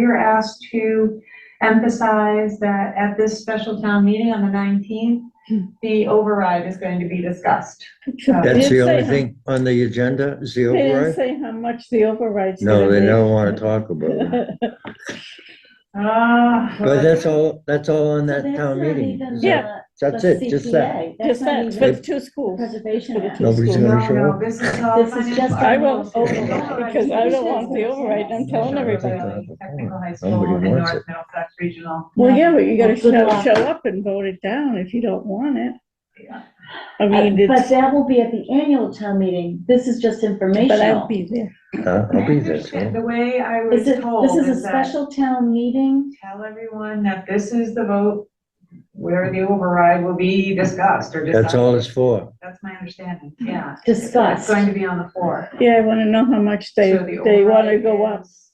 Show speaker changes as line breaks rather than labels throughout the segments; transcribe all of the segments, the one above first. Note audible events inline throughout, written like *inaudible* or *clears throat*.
We were asked to emphasize that at this special town meeting on the 19th, the override is going to be discussed.
That's
Did
the
it say
only
how-
thing on the agenda, is the
They didn't
override?
say how much the override's gonna
No,
be.
they don't want to talk about
*laughs*
it.
Ah.
But that's all, that's all on that
That's
town
not
meeting.
even
Yeah.
the-
That's
the
it, just that.
CPA. That's
Just
not
that, for
even
the two
the
schools.
Preservation
for the
Act.
two
Nobody's
No,
schools.
gonna show
no,
up.
this is all.
This is just-
financial-
I won't
Override.
override, because I don't want the
Override.
override, I'm telling everybody.
Technical High
Nobody
School and
wants
North
it.
Middlesex Regional.
Well, yeah, but you gotta
Well, good
show,
luck.
show up and vote it down if you don't want it.
Yeah.
Uh,
I mean,
But
it's,
that will be at the annual town meeting. This is just
but I'll
informational.
be there.
Huh? I'll be there,
Understand,
*laughs*
so.
The way I was
This is,
told
this is a
is that
special town meeting.
tell everyone that this is the vote where the override will be discussed or
That's
decided.
all it's for.
That's my understanding,
Mm-hmm.
yeah. It's
Discussed.
going to be on the floor.
Yeah, I wanna know how much they,
So the
they wanna
override
go up.
is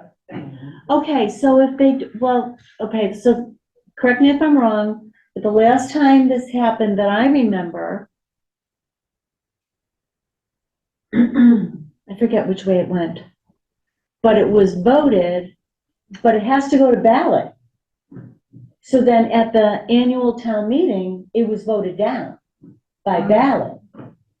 a thing.
Okay, so if they, d- well, okay, so correct me if I'm wrong, but the last time this happened that I remember, *clears throat* I forget which way it went, but it was voted, but it has to go to ballot. So then at the annual town meeting, it was voted down by ballot.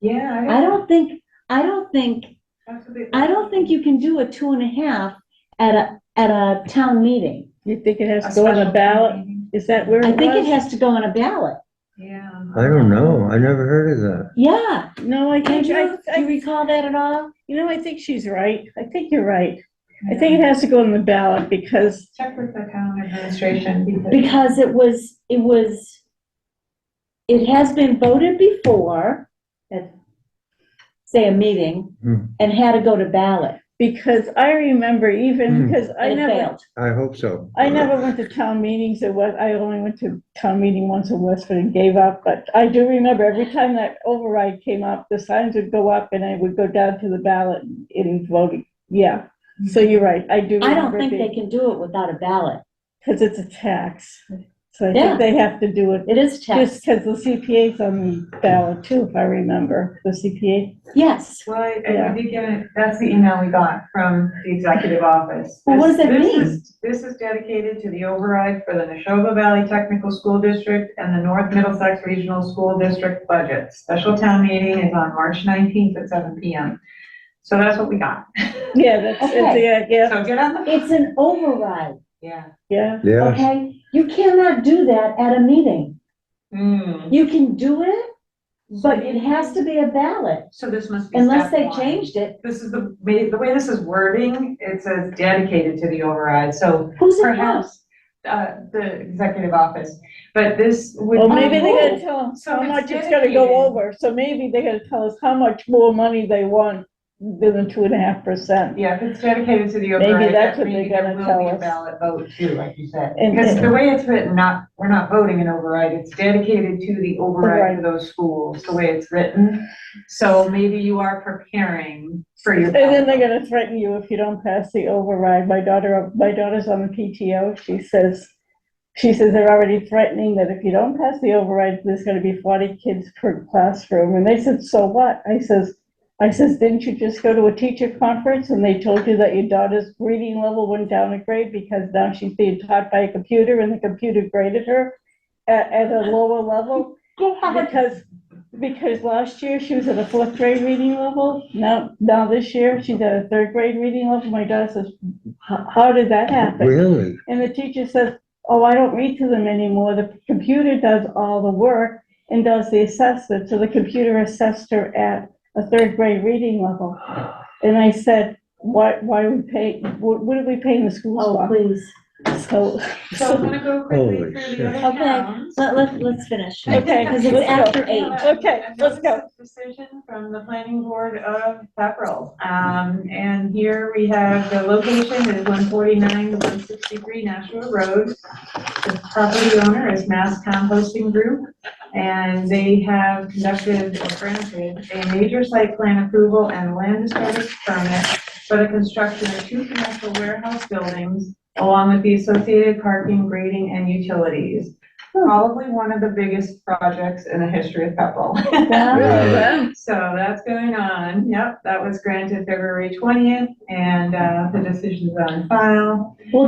Yeah.
I don't think, I don't think,
that's what they-
I don't think you can do a two and a half at a, at a town meeting.
You think it has
A
to go on
special
the
town
ballot?
meeting,
Is that where it
I
was?
think it has to go on a ballot.
Yeah.
I don't know. I never heard of that.
Yeah.
No, I think, I,
Andrew, do you
I,
recall that at all?
you know, I think she's right. I think you're right. I think it has to go on the ballot because
Check with the town administration because
Because it was, it was, it has been voted before, at, say, a meeting,
Hmm.
and had to go to ballot.
Because I remember even,
Hmm.
because I
and it
never,
failed.
I hope so.
I never went to town meetings or what, I only went to town meeting once in Westford and gave up. But I do remember every time that override came up, the signs would go up and I would go down to the ballot in voting. Yeah, so you're right, I do
Mm-hmm. I don't
remember
think they
it
can do it without a ballot.
because it's a tax. So I
Yeah.
think they have to do it,
It is
just
tax.
because the CPA's on the ballot too, if I remember, the CPA.
Yes.
Well, I-
Yeah.
I did get it, that's the email we got from the executive office.
Well, what does that
This-
mean?
this is- This is dedicated to the override for the Neshoba Valley Technical School District and the North Middlesex Regional School District budget. Special town meeting is on March nineteenth at seven P M. So that's what we got.
Yeah, that's, it's-
Okay.
yeah, yeah,
So get on the.
It's an override,
Yeah.
yeah.
Yeah,
okay? You cannot do that at a meeting.
Hmm.
You can do it, but it has to be a ballot,
So this must be.
unless
step
they
one.
changed it.
This is the, way- the way this is wording, it says dedicated to the override, so
Who's it from?
perhaps, uh, the executive office, but this would.
Well, maybe they
Oh,
gotta tell us
so
how
it's
much it's gonna go
dedicated.
over, so maybe they gotta tell us how much more money they want than the two and a half percent.
Yeah, if it's dedicated to the
Maybe
override, that
that's what
maybe
they're
there
gonna
will
tell
be a
us.
ballot vote too, like you said.
And-
Because
and-
the way it's written, not, we're not voting an override, it's dedicated to the override
Override.
of those schools, the way it's written. So maybe you are preparing for your.
And then they're
ballot.
gonna threaten you if you don't pass the override. My daughter, my daughter's on the PTO, she says, she says they're already threatening that if you don't pass the override, there's gonna be forty kids per classroom, and they said, so what? I says, I says, didn't you just go to a teacher conference and they told you that your daughter's reading level went down a grade because now she's being taught by a computer and the computer graded her at, at a lower level? Because, because last year she was at a fourth grade reading level, now, now this year she's at a third grade reading level, my daughter says, "How how did that happen?
really?
And the teacher says, oh, I don't read to them anymore, the computer does all the work and does the assessment, so the computer assessed her at a third grade reading level. And I said, why, why we pay, what, what are we paying the schools
Oh,
for?
please.
So, *laughs*
So I'm gonna go quickly
Holy
through
shit.
the other
Okay.
towns.
Let, let, let's finish.
Okay,
Because it's
let's go.
after eight.
Okay, let's go.
Decision from the planning board of Pepperell. Um, and here we have the location is one forty-nine to one sixty-three Nashua Road. The property owner is Mass Composting Group, and they have conducted or granted a major site plan approval and land disturbance permit for the construction of two commercial warehouse buildings along with the associated parking, grading, and utilities. probably one of the biggest projects in the history of Pepperell.
Wow.
*laughs* So that's going on. Yep, that was granted February twentieth, and, uh, the decision's on file.